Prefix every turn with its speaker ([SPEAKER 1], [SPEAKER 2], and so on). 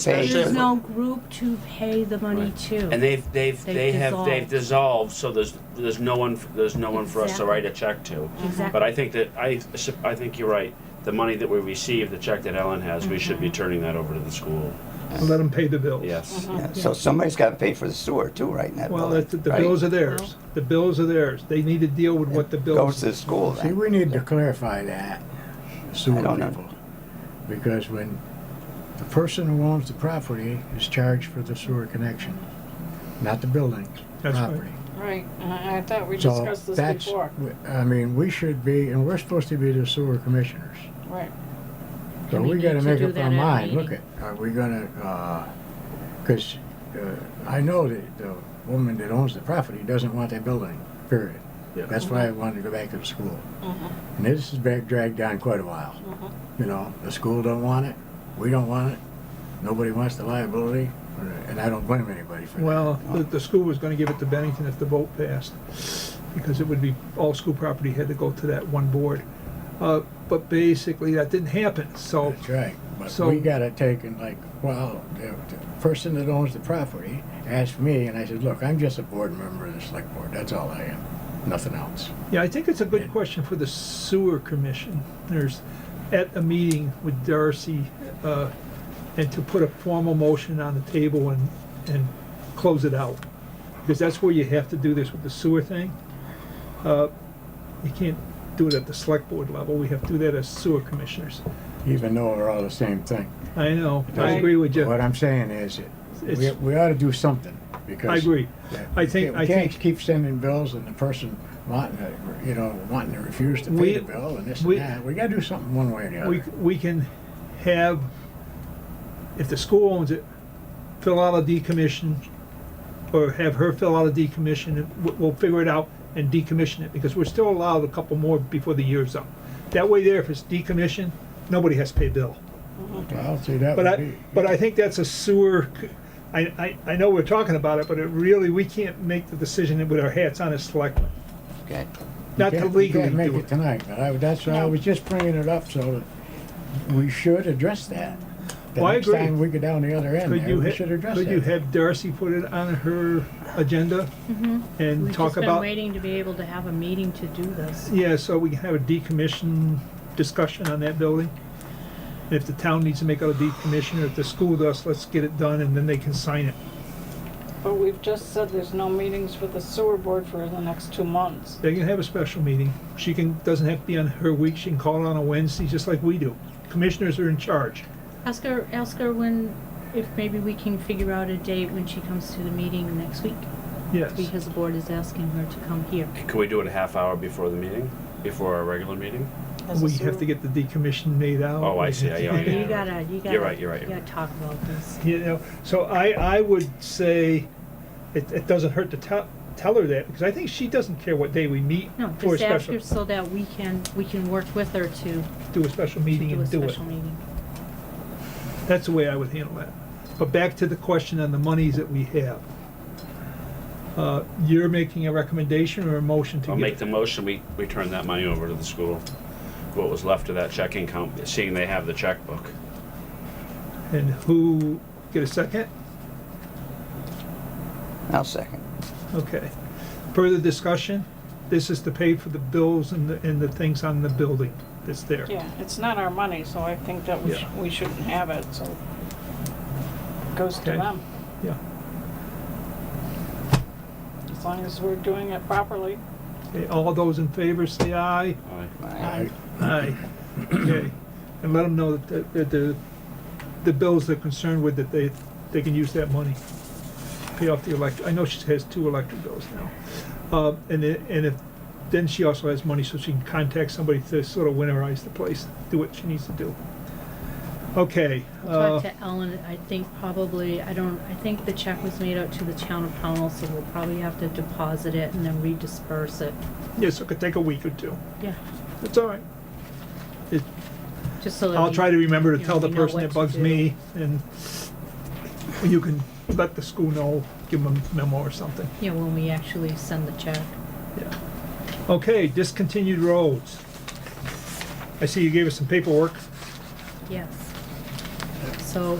[SPEAKER 1] Especially-
[SPEAKER 2] There's no group to pay the money
[SPEAKER 3] Right.
[SPEAKER 2] to.
[SPEAKER 1] And they've, they've,
[SPEAKER 2] They've
[SPEAKER 1] they have, they've
[SPEAKER 2] dissolved.
[SPEAKER 1] dissolved, so there's, there's no one, there's no one for us to
[SPEAKER 2] Exactly.
[SPEAKER 1] write a check to. But
[SPEAKER 2] Exactly.
[SPEAKER 1] I think that, I, I think you're right. The money that we receive, the check that Ellen has, we should be turning that over to the school.
[SPEAKER 4] and let them pay the bills.
[SPEAKER 1] Yes.
[SPEAKER 3] Yeah,
[SPEAKER 2] Oh, Yeah.
[SPEAKER 3] so somebody's gotta pay for the sewer too, right, in that
[SPEAKER 4] Well,
[SPEAKER 3] building,
[SPEAKER 4] that's- the
[SPEAKER 3] right?
[SPEAKER 4] bills are theirs. The bills are theirs. They need to deal with what the
[SPEAKER 3] Goes
[SPEAKER 4] bills.
[SPEAKER 3] to the school
[SPEAKER 5] See,
[SPEAKER 3] then.
[SPEAKER 5] we need to clarify that, sewer
[SPEAKER 3] don't know.
[SPEAKER 5] people. Because when the person who owns the property is charged for the sewer connection, not the building,
[SPEAKER 4] That's right.
[SPEAKER 5] property.
[SPEAKER 6] Right, I, I thought we
[SPEAKER 5] So
[SPEAKER 6] discussed this
[SPEAKER 5] that's,
[SPEAKER 6] before.
[SPEAKER 5] I mean, we should be, and we're supposed to be the sewer commissioners.
[SPEAKER 6] Right,
[SPEAKER 5] So
[SPEAKER 2] And we
[SPEAKER 5] we gotta
[SPEAKER 2] need to
[SPEAKER 5] make
[SPEAKER 2] do
[SPEAKER 5] up
[SPEAKER 2] that
[SPEAKER 5] our
[SPEAKER 2] at a
[SPEAKER 5] mind,
[SPEAKER 2] meeting.
[SPEAKER 5] look at, are we gonna, uh 'cause cause, uh, I know that the woman that owns the property doesn't want that building, period.
[SPEAKER 4] Yeah.
[SPEAKER 5] That's why I wanted to go back to the school. And this has been dragged on quite a while. You know, the school don't want it, we don't want it, nobody wants the liability, and I don't blame anybody for that.
[SPEAKER 4] Well, the, the school was gonna give it to Bennington if the vote passed, because it would be, all school property had to go to that one board. Uh, but basically, that didn't happen, so,
[SPEAKER 5] That's right, but
[SPEAKER 4] So-
[SPEAKER 5] we gotta take and like, well, the, the person that owns the property asked me, and I said, look, I'm just a board member of the select board, that's all I am, nothing else.
[SPEAKER 4] yeah, I think it's a good question for the sewer commission. There's, at a meeting with Darcy, uh, and to put a formal motion on the table and, and close it out. Because that's where you have to do this with the sewer thing. Uh, you can't do it at the select board level, we have to do that as sewer commissioners.
[SPEAKER 5] Even though we're all the same thing.
[SPEAKER 4] I know, I
[SPEAKER 5] Right.
[SPEAKER 4] agree with you.
[SPEAKER 5] What I'm saying is, that we,
[SPEAKER 4] It's-
[SPEAKER 5] we ought to do something, because.
[SPEAKER 4] I agree. I think-
[SPEAKER 5] We
[SPEAKER 4] I
[SPEAKER 5] can't
[SPEAKER 4] think-
[SPEAKER 5] keep sending bills and the person wanting, to, you know, wanting to refuse to
[SPEAKER 4] We-
[SPEAKER 5] pay the bill and this
[SPEAKER 4] we-
[SPEAKER 5] and that, we gotta do something one way or the
[SPEAKER 4] We,
[SPEAKER 5] other.
[SPEAKER 4] we can have, if the school owns it, fill out a decommission, or have her fill out a decommission, and we- we'll figure it out and decommission it, because we're still allowed a couple more before the year's up. That way there, if it's decommissioned, nobody has to pay a bill.
[SPEAKER 5] Well, see, that
[SPEAKER 4] But
[SPEAKER 5] would
[SPEAKER 4] I,
[SPEAKER 5] be.
[SPEAKER 4] but I think that's a sewer, c- I, I, I know we're talking about it, but it really, we can't make the decision with our hats on as selectmen,
[SPEAKER 3] Okay,
[SPEAKER 4] not
[SPEAKER 5] You
[SPEAKER 4] to
[SPEAKER 5] can't- you
[SPEAKER 4] legally
[SPEAKER 5] can't make
[SPEAKER 4] do
[SPEAKER 5] it
[SPEAKER 4] it.
[SPEAKER 5] tonight, but I, that's why I was just bringing it up, so that we should address that. The
[SPEAKER 4] Well, I
[SPEAKER 5] next
[SPEAKER 4] agree.
[SPEAKER 5] time we go down the other end
[SPEAKER 4] Could
[SPEAKER 5] there,
[SPEAKER 4] you,
[SPEAKER 5] we
[SPEAKER 4] ha-
[SPEAKER 5] should address
[SPEAKER 4] could you
[SPEAKER 5] that.
[SPEAKER 4] have Darcy put it on her agenda and
[SPEAKER 2] Mm-hmm. We've
[SPEAKER 4] talk
[SPEAKER 2] just been
[SPEAKER 4] about,
[SPEAKER 2] waiting to be able to have a meeting to do this.
[SPEAKER 4] yeah, so we can have a decommission discussion on that building? And if the town needs to make out a decommission, or if the school does, let's get it done and then they can sign it.
[SPEAKER 6] but we've just said there's no meetings for the sewer board for the next two months.
[SPEAKER 4] They can have a special meeting. She can, doesn't have to be on her week, she can call on a Wednesday, just like we do. Commissioners are in charge.
[SPEAKER 2] Ask her, ask her when, if maybe we can figure out a date when she comes to the meeting next week,
[SPEAKER 4] Yes,
[SPEAKER 2] because the board is asking her to come here.
[SPEAKER 1] Can we do it a half hour before the meeting, before our regular meeting?
[SPEAKER 6] As a
[SPEAKER 4] we have to
[SPEAKER 6] sewer-
[SPEAKER 4] get the decommission made out.
[SPEAKER 1] Oh, I see. I- yeah,
[SPEAKER 2] You
[SPEAKER 1] yeah.
[SPEAKER 2] gotta, you gotta.
[SPEAKER 1] You're right, you're right,
[SPEAKER 2] You
[SPEAKER 1] you're
[SPEAKER 2] gotta talk about this.
[SPEAKER 4] You know, so I, I would say it, it doesn't hurt to tell, tell her that, because I think she doesn't care what day we meet
[SPEAKER 2] No,
[SPEAKER 4] for a
[SPEAKER 2] just ask
[SPEAKER 4] special,
[SPEAKER 2] her so that we can, we can work with her to
[SPEAKER 4] do a special meeting
[SPEAKER 2] do a
[SPEAKER 4] and do it.
[SPEAKER 2] special meeting.
[SPEAKER 4] That's the way I would handle that. But back to the question on the monies that we have. Uh, you're making a recommendation or a motion to
[SPEAKER 1] I'll make
[SPEAKER 4] give?
[SPEAKER 1] the motion, we, we turn that money over to the school. What was left of that checking account, seeing they have the checkbook.
[SPEAKER 4] And who, get a second?
[SPEAKER 3] I'll second.
[SPEAKER 4] Okay. Further discussion? This is to pay for the bills and the, and the things on the building that's there.
[SPEAKER 6] Yeah, it's not our money, so I think that we, sh-
[SPEAKER 4] Yeah.
[SPEAKER 6] we shouldn't have it, so. Goes to
[SPEAKER 4] Okay.
[SPEAKER 6] them,
[SPEAKER 4] Yeah.
[SPEAKER 6] as long as we're doing it properly.
[SPEAKER 4] Okay, all those in favor, say aye.
[SPEAKER 1] Aye.
[SPEAKER 3] Aye.
[SPEAKER 4] Aye. Okay. And let them know that, the- that the, the bills they're concerned with, that they, they can use that money. Pay off the elect, I know she has two electric bills now. Uh, and then, and if, then she also has money so she can contact somebody to sort of winterize the place, do what she needs to do. Okay, uh,
[SPEAKER 2] Talk to Ellen, I think probably, I don't, I think the check was made out to the town of Pownell, so we'll probably have to deposit it and then redisperse it.
[SPEAKER 4] yes, it could take a week or two.
[SPEAKER 2] Yeah.
[SPEAKER 4] It's all right. It,
[SPEAKER 2] Just so that.
[SPEAKER 4] I'll
[SPEAKER 2] we-
[SPEAKER 4] try to remember to
[SPEAKER 2] you know,
[SPEAKER 4] tell the
[SPEAKER 2] we know
[SPEAKER 4] person
[SPEAKER 2] what
[SPEAKER 4] that
[SPEAKER 2] to
[SPEAKER 4] bugs
[SPEAKER 2] do.
[SPEAKER 4] me, and you can let the school know, give them a memo or something.
[SPEAKER 2] Yeah, when we actually send the check.
[SPEAKER 4] Yeah. Okay, discontinued roads. I see you gave us some paperwork.
[SPEAKER 2] Yes. So